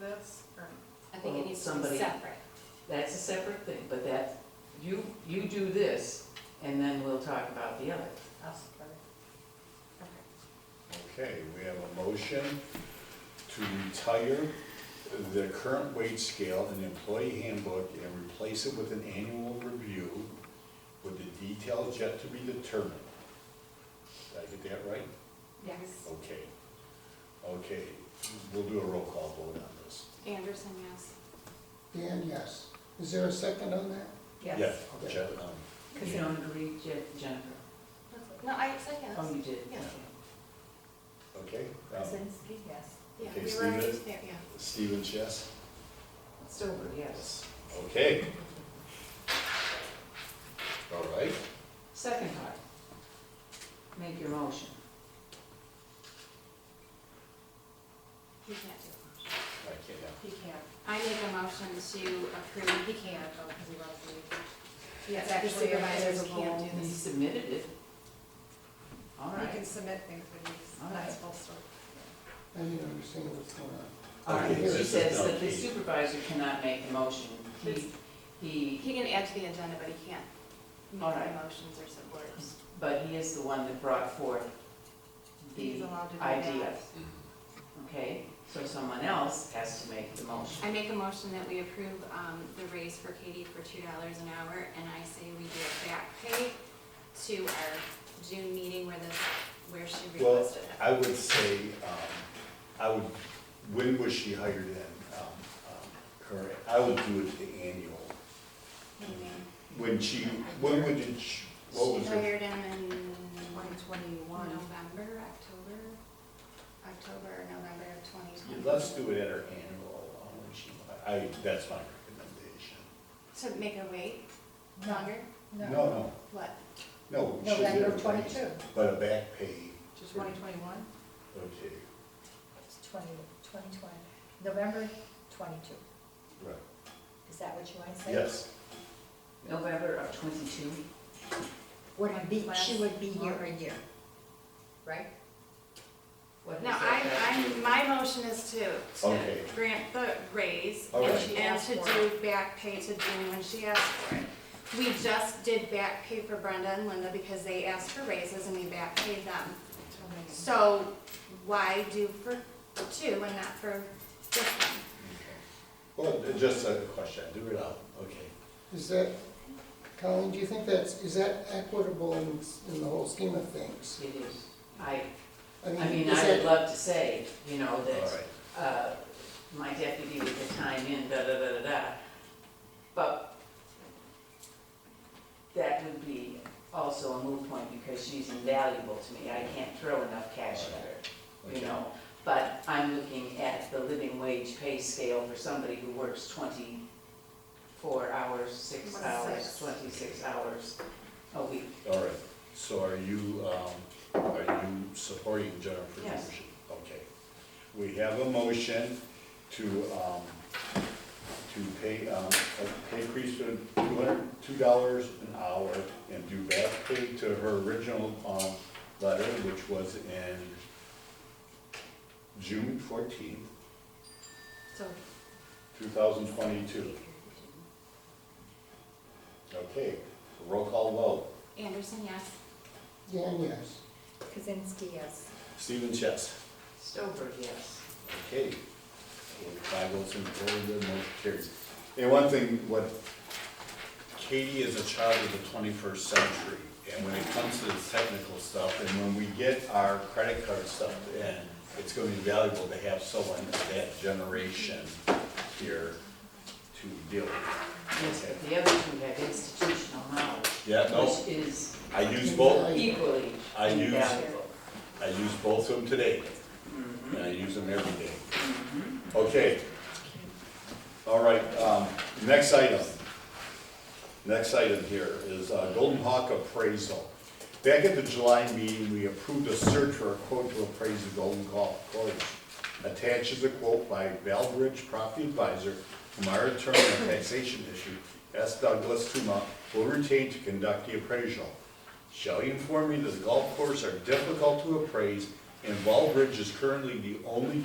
this, or? I think it Well, needs to be somebody- separate. That's a separate thing, but that, you, you do this, and then we'll talk about the other. I'll support it. Okay. Okay, we have a motion to retire the current wage scale and employee handbook and replace it with an annual review with the details yet to be determined. Did I get that right? Yes. Okay. Okay, we'll do a roll call vote on this. Anderson, yes. Dan, yes. Is there a second on that? Yeah, Yes. Okay. Jen, um, You don't agree, Je- Jennifer? No, I second. Oh, you did? Yeah. Okay, um, Krasinski, yes. Yeah, Okay, we were Steven? already there, yeah. Stevens, yes? Stover, yes. Okay. All right, Second part, make your motion. He can't do I can't, yeah. He can't. it. I make a motion to approve, he can't, oh, because he loves me. Yes, The actually, supervisors can't do He this. submitted it. All You can right. submit things when All you, right. that's full story. I didn't understand what's going on. All right, Okay, here this it is says done. that the supervisor cannot make the motion. He, he, He can add to the agenda, but he can't All make right. any motions or supports. but he is the one that brought forth He's the allowed to do that. idea, okay? So someone else has to make the motion. I make a motion that we approve um, the raise for Katie for two dollars an hour, and I say we do a back pay to our June meeting where this, where she Well, requested it. I would say, um, I would, when was she hired in? Um, um, Her, I would do it the annual. When she, when would it, sh- what was She her? hired him in One twenty-one. November, October, October, November of twenty twenty. Let's do it at her annual, um, when she, I, that's my recommendation. To make her wait No. longer? No, no, What? no. she'll get November her twenty-two. raise, But a back pay, Just twenty twenty-one? okay, It's 20, 2020, November 22. right, Is that what you want to say? yes. November of twenty-two? Would be, she Last would be here month. a year, right? What is No, I, that? I, my motion is to, to Okay. grant the raise All and right. she- She and asked to for do back pay to June when she asked for it. We just did back pay for Brenda and Linda because they asked for raises and we back paid them. So why do for two and not for just one? Well, just a question, do it out, okay. Is that, Colleen, do you think that's, is that equitable in, in the whole scheme of things? It is. I, I mean, is I would that love to say, you know, All that right, uh, my deputy with the time in, da, da, da, da, da. But that would be also a moot point because she's invaluable to me. I can't throw enough cash at her, you okay. know? But I'm looking at the living wage pay scale for somebody who works twenty-four hours, six Six. hours, twenty-six hours a week. All right, so are you, um, are you supporting Jennifer's Yes. motion? Okay. We have a motion to, um, to pay, um, a pay increase of two hundred, two dollars an hour and do back pay to her original, um, letter, which was in June fourteenth, So, two thousand twenty-two. Okay, roll call vote. Anderson, yes. Dan, yes. Kazinsky, yes. Stephen Chess. Stover, yes. Okay, With five votes in favor, the motion carries. And one thing, what, Katie is a child of the twenty-first century, and when it comes to the technical stuff, and when we get our credit card stuff in, it's gonna be valuable to have someone of that generation here to deal with. Yes, but the other two have institutional knowledge. Yeah, no, Which is I use both, equally I use- invaluable. I use both of them today, and I use them every day. Okay. All right, um, next item. Next item here is uh, Golden Hawk appraisal. Back at the July meeting, we approved a search for a quote to appraise the Golden Golf Course. Attached is a quote by Valbridge Property Advisor, whom our attorney on taxation issue, S. Douglas Tuma, will retain to conduct the appraisal. Shall you inform me that the golf course are difficult to appraise, and Valbridge is currently the only